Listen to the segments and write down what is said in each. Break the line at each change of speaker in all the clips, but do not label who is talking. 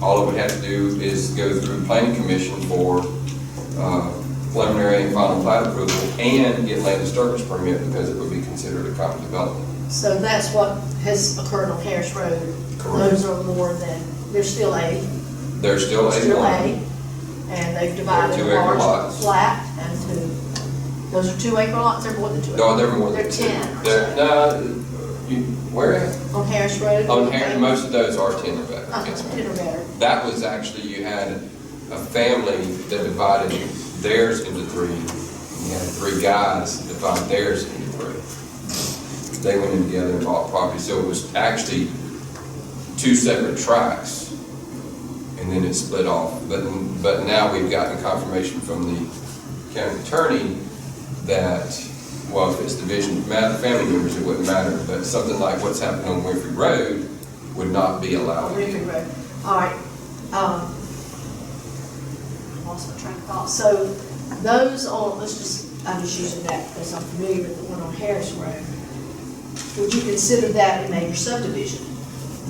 All it would have to do is go through planning commission for uh, preliminary and final plat approval and get land disturbance permit because it would be considered a common development.
So that's what has occurred on Harris Road.
Correct.
Those are more than, they're still A,
There's still a
still
one.
A, and they've divided
They're two-acre
large
lots.
flat and two. Those are two acre lots, they're more than two.
No,
acre.
they're more than
They're
two.
ten. or
They're-
so.
No, you, where at?
On Harris Road.
On Harris, most of those are ten or better.
Uh,
Yes, ma'am.
ten or better.
That was actually, you had a family that divided theirs into three. You had three guys that divided theirs into three. They went in together and bought property, so it was actually two separate tracks. And then it split off, but, but now we've gotten confirmation from the county attorney that, well, if it's division, matter, family members, it wouldn't matter, but something like what's happened on Winfrey Road would not be allowed.
River Road. All right, um, lost my train of thought. So those on, let's just, I'm just using that because I'm familiar with the one on Harris Road. Would you consider that a major subdivision?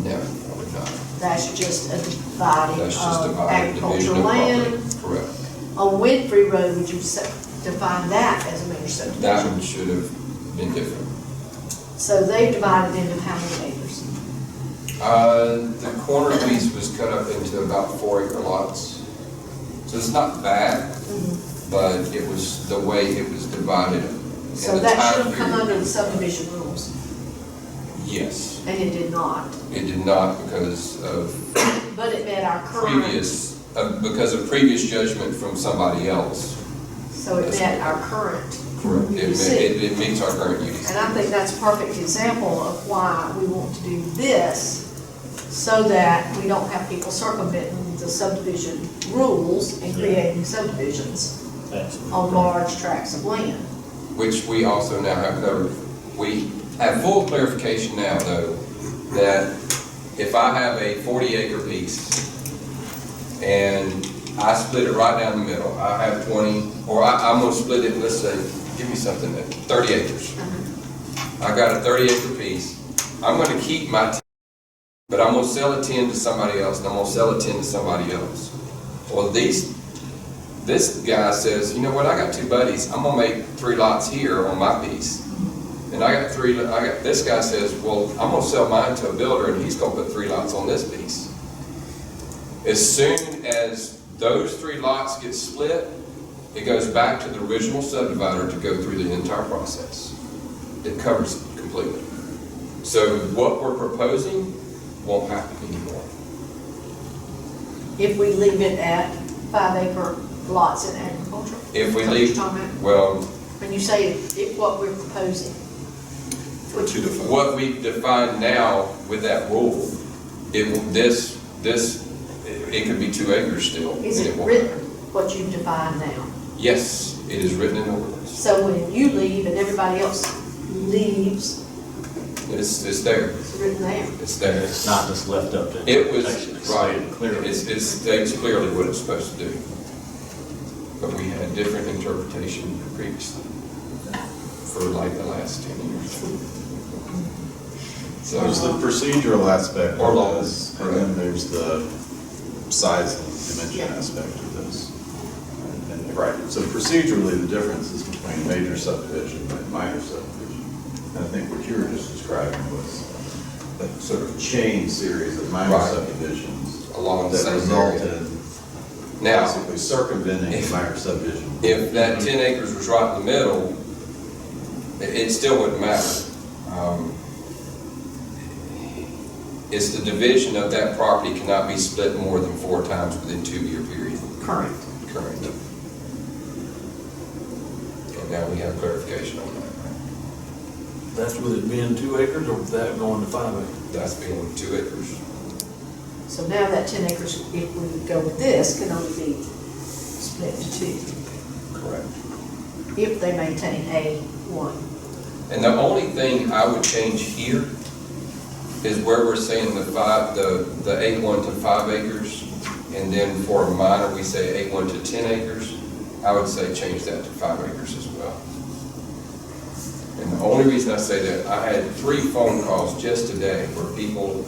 No, I would not.
That's just a dividing
That's just
of
divided division
agricultural
of property.
land.
Correct.
On Winfrey Road, would you se- define that as a major
That
subdivision?
one should have been different.
So they divided into how many acres?
Uh, the corner piece was cut up into about four acre lots. So it's not bad,
Mm-hmm.
but it was the way it was divided. and
So
the
that
time
should have come
period.
under the subdivision rules,
Yes,
and it did not.
it did not because of
But it met our current.
previous, uh, because of previous judgment from somebody else.
So it met our current.
Correct. It,
UDC.
ma- it it meets our current
And
UDC.
I think that's a perfect example of why we want to do this, so that we don't have people circumventing the subdivision rules and creating subdivisions on large tracts of land.
which we also now have covered. We have full clarification now, though, that if I have a forty acre piece and I split it right down the middle, I have twenty, or I, I'm gonna split it, let's say, give me something, at thirty acres. I got a thirty acre piece, I'm gonna keep my, 10, but I'm gonna sell a ten to somebody else, and I'm gonna sell a ten to somebody else. Well, these this guy says, you know what, I got two buddies, I'm gonna make three lots here on my piece. And I got three, I got, this guy says, well, I'm gonna sell mine to a builder and he's gonna put three lots on this piece. As soon as those three lots get split, it goes back to the original subdivider to go through the entire process. It covers it completely. So what we're proposing won't happen anymore.
If we leave it at five acre lots in agriculture.
If we
Is that what you're
leave,
talking about?
well,
When you say it, what we're proposing. which-
What we define now with that rule, it, will- this, this, it could be two acres still.
Is
and
it
won't
written,
matter.
what you define now?
Yes, it is written in ordinance.
So when you leave and everybody else leaves,
It's, it's there,
it's written there.
it's there.
It's not just left up to.
It was,
interpretation, it's
right,
stated Clearly.
it's, it states clearly what it's supposed to do. But we had different interpretation previously for like the last ten years.
Mm-hmm.
So,
There's the procedural aspect
Or law.
of this, and then there's the size and dimension aspect of this. And- and- Right, so procedurally, the difference is between major subdivision and minor subdivision. And I think what you were just describing was that sort of chain series of minor
Right.
subdivisions
Along the
that
same area.
resulted in
Now-
basically circumventing the minor subdivision.
if that ten acres was right in the middle, it, it still wouldn't matter. Um, It's the division of that property cannot be split more than four times within two-year period
Current.
current. And now we have clarification on that.
That's with it being two acres or with that going to five acres?
That's being two acres.
So now that ten acres, if we go with this, can only be split to two,
Correct.
if they maintain A one.
And the only thing I would change here is where we're saying the five, the, the eight one to five acres, and then for a minor, we say eight one to ten acres. I would say change that to five acres as well. And the only reason I say that, I had three phone calls just today where people